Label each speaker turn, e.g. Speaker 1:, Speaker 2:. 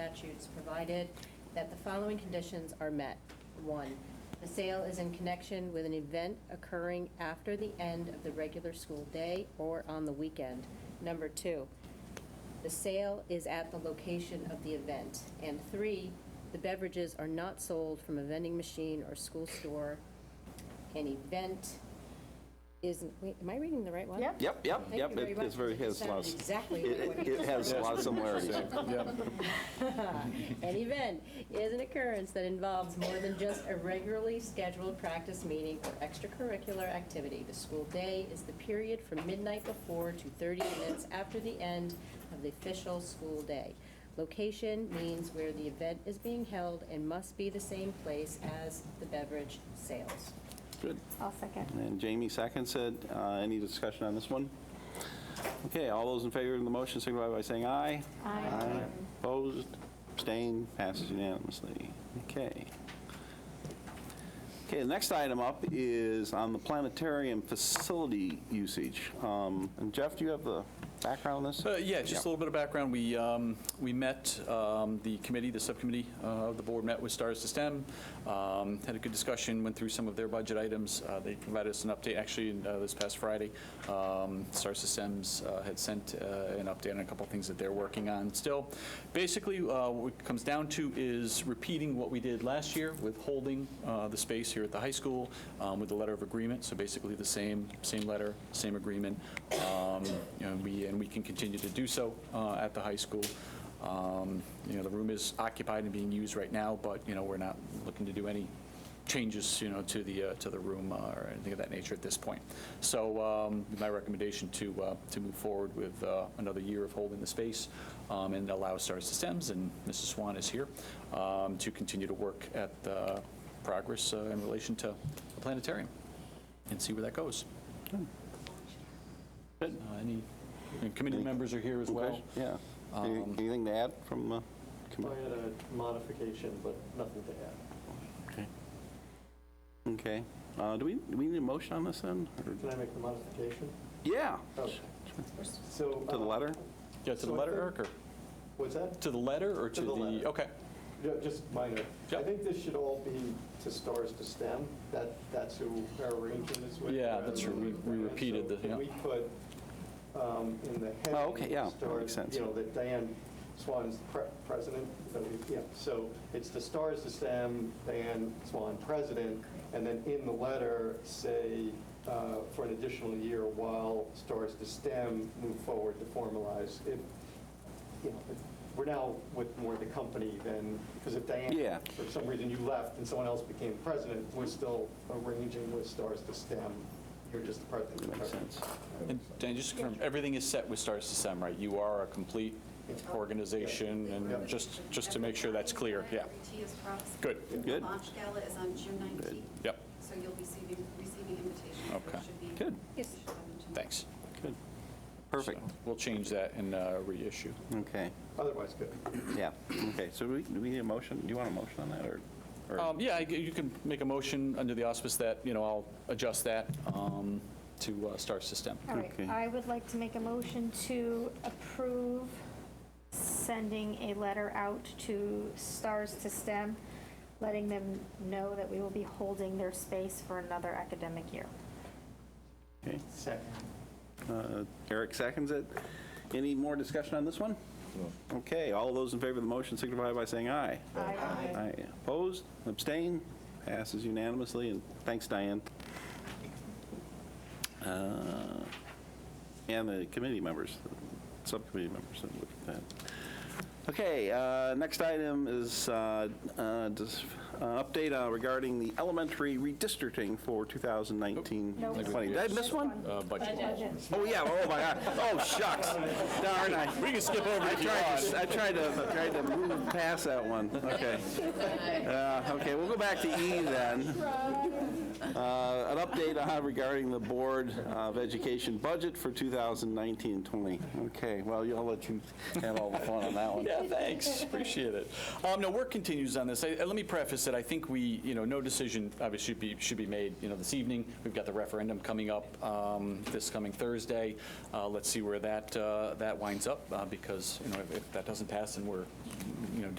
Speaker 1: statutes provided that the following conditions are met. One, the sale is in connection with an event occurring after the end of the regular school day or on the weekend. Number two, the sale is at the location of the event. And three, the beverages are not sold from a vending machine or school store. An event isn't, wait, am I reading the right one?
Speaker 2: Yep.
Speaker 3: Yep, yep,
Speaker 1: Thank
Speaker 3: yep.
Speaker 1: you very
Speaker 3: It-
Speaker 1: much.
Speaker 3: It's very,
Speaker 1: It
Speaker 3: has
Speaker 1: sounded
Speaker 3: lots.
Speaker 1: exactly
Speaker 3: it-
Speaker 1: like what
Speaker 3: It has a lot of similarities.
Speaker 1: An event is an occurrence that involves more than just a regularly scheduled practice meeting or extracurricular activity. The school day is the period from midnight before to 30 minutes after the end of the official school day. Location means where the event is being held and must be the same place as the beverage sales.
Speaker 3: Good.
Speaker 2: I'll second.
Speaker 3: And Jamie seconds it. Uh, Any discussion on this one? Okay, all those in favor of the motion signify by saying aye. Aye. Opposed, abstained, passes unanimously. Okay. Okay, the next item up is on the planetarium facility usage. Um, And Jeff, do you have the background on this?
Speaker 4: Uh, Yeah, just a little bit of background. We, um, we met, um, the committee, the subcommittee uh, of the board met with Stars to STEM, um, had a good discussion, went through some of their budget items. Uh, They provided us an update, actually, uh, this past Friday. Um, Stars to STEM's uh, had sent uh, an update on a couple of things that they're working on still. Basically, uh, what it comes down to is repeating what we did last year with holding uh, the space here at the high school um, with the letter of agreement. So basically, the same, same letter, same agreement. Um, you know, we- And we can continue to do so uh, at the high school. Um, You know, the room is occupied and being used right now, but, you know, we're not looking to do any changes, you know, to the, uh, to the room uh, or anything of that nature at this point. So um, my recommendation to, uh, to move forward with uh, another year of holding the space um, and allow Star Systems, and Mrs. Swan is here, um, to continue to work at the progress uh, in relation to the planetarium and see where that goes. Uh, Any, and committee members are here as well.
Speaker 3: Okay, Yeah. Any-
Speaker 4: um,
Speaker 3: Anything to add from uh, the
Speaker 5: I
Speaker 3: committee?
Speaker 5: had a modification, but nothing to add.
Speaker 3: Okay. Okay. Uh, Do we, do we need a motion on this then? or-
Speaker 5: Can I make the modification?
Speaker 3: Yeah.
Speaker 5: Oh, So.
Speaker 3: To the
Speaker 5: uh,
Speaker 3: letter?
Speaker 4: Yeah, to the
Speaker 5: So I
Speaker 4: letter,
Speaker 5: think-
Speaker 4: Eric, or
Speaker 5: What's that?
Speaker 4: to the letter or to
Speaker 5: To
Speaker 4: the?
Speaker 5: the letter.
Speaker 4: Okay,
Speaker 5: Ju- Just minor.
Speaker 4: Yeah.
Speaker 5: I think this should all be to STARS to STEM. That, that's who our arrangement is with.
Speaker 4: Yeah, that's
Speaker 5: rather
Speaker 4: true. We-
Speaker 5: than
Speaker 4: we
Speaker 5: Diane.
Speaker 4: repeated
Speaker 5: So
Speaker 4: the-
Speaker 5: can
Speaker 4: yeah.
Speaker 5: we put um, in the heading.
Speaker 3: Oh, okay, yeah, that
Speaker 5: STARS,
Speaker 3: makes sense.
Speaker 5: You know, that Diane Swan's pre- president, that we- yeah. So it's the STARS to STEM, Diane Swan president, and then in the letter, say, uh, for an additional year while STARS to STEM move forward to formalize. If, you know, we're now with more the company than, because if
Speaker 3: Yeah.
Speaker 5: Diane, for some reason you left and someone else became president, we're still arranging with stars to STEM. You're just the part that.
Speaker 3: That makes sense.
Speaker 4: and Dan, just to confirm, everything is set with Stars to STEM, right? You are a complete organization,
Speaker 5: Yeah.
Speaker 4: and just, just to make sure that's clear, yeah.
Speaker 6: Every is crossed.
Speaker 4: Good.
Speaker 3: Good.
Speaker 6: The launch gala is on June 19th.
Speaker 4: Yep.
Speaker 6: So you'll be receiving, receiving invitations. so it
Speaker 4: Okay.
Speaker 6: should be-
Speaker 3: Good.
Speaker 6: you should have them tonight.
Speaker 4: Thanks.
Speaker 3: Good. Perfect.
Speaker 4: So We'll change that and uh, reissue.
Speaker 3: Okay.
Speaker 5: Otherwise, good.
Speaker 3: Yeah. Okay. So do we, do we need a motion? Do you want a motion on that or? or-
Speaker 4: Um, Yeah, I g- you can make a motion under the auspice that, you know, I'll adjust that um, to uh, Stars to STEM.
Speaker 2: All right,
Speaker 3: Okay.
Speaker 2: I would like to make a motion to approve sending a letter out to Stars to STEM, letting them know that we will be holding their space for another academic year.
Speaker 3: Okay.
Speaker 5: Second.
Speaker 3: Uh, Eric seconds it. Any more discussion on this one? Okay. All those in favor of the motion signify by saying aye.
Speaker 2: Aye.
Speaker 3: Aye. Opposed? Abstained? Passes unanimously. And thanks, Diane. Uh, And the committee members, the subcommittee members that looked at that. Okay, uh, next item is uh, uh, dis- uh, update uh, regarding the elementary redistricting for 2019-20.
Speaker 2: Nope.
Speaker 3: Did I miss one?
Speaker 4: Uh, Budget.
Speaker 3: Oh, yeah, oh my God, oh shucks, darn, I.
Speaker 4: We can skip over
Speaker 3: I
Speaker 4: if you
Speaker 3: tried,
Speaker 4: want.
Speaker 3: to, I tried to, tried to move past that one. Okay. Uh, okay, we'll go back to E then. Uh, An update on regarding the Board of Education budget for 2019-20. Okay, well, I'll let you have all the fun on that one.
Speaker 4: Yeah, thanks, appreciate it. Um, No, work continues on this. I- I- Let me preface that I think we, you know, no decision obviously should be, should be made, you know, this evening. We've got the referendum coming up um, this coming Thursday. Uh, Let's see where that, uh, that winds up, uh, because, you know, if- if that doesn't pass, then we're, you know,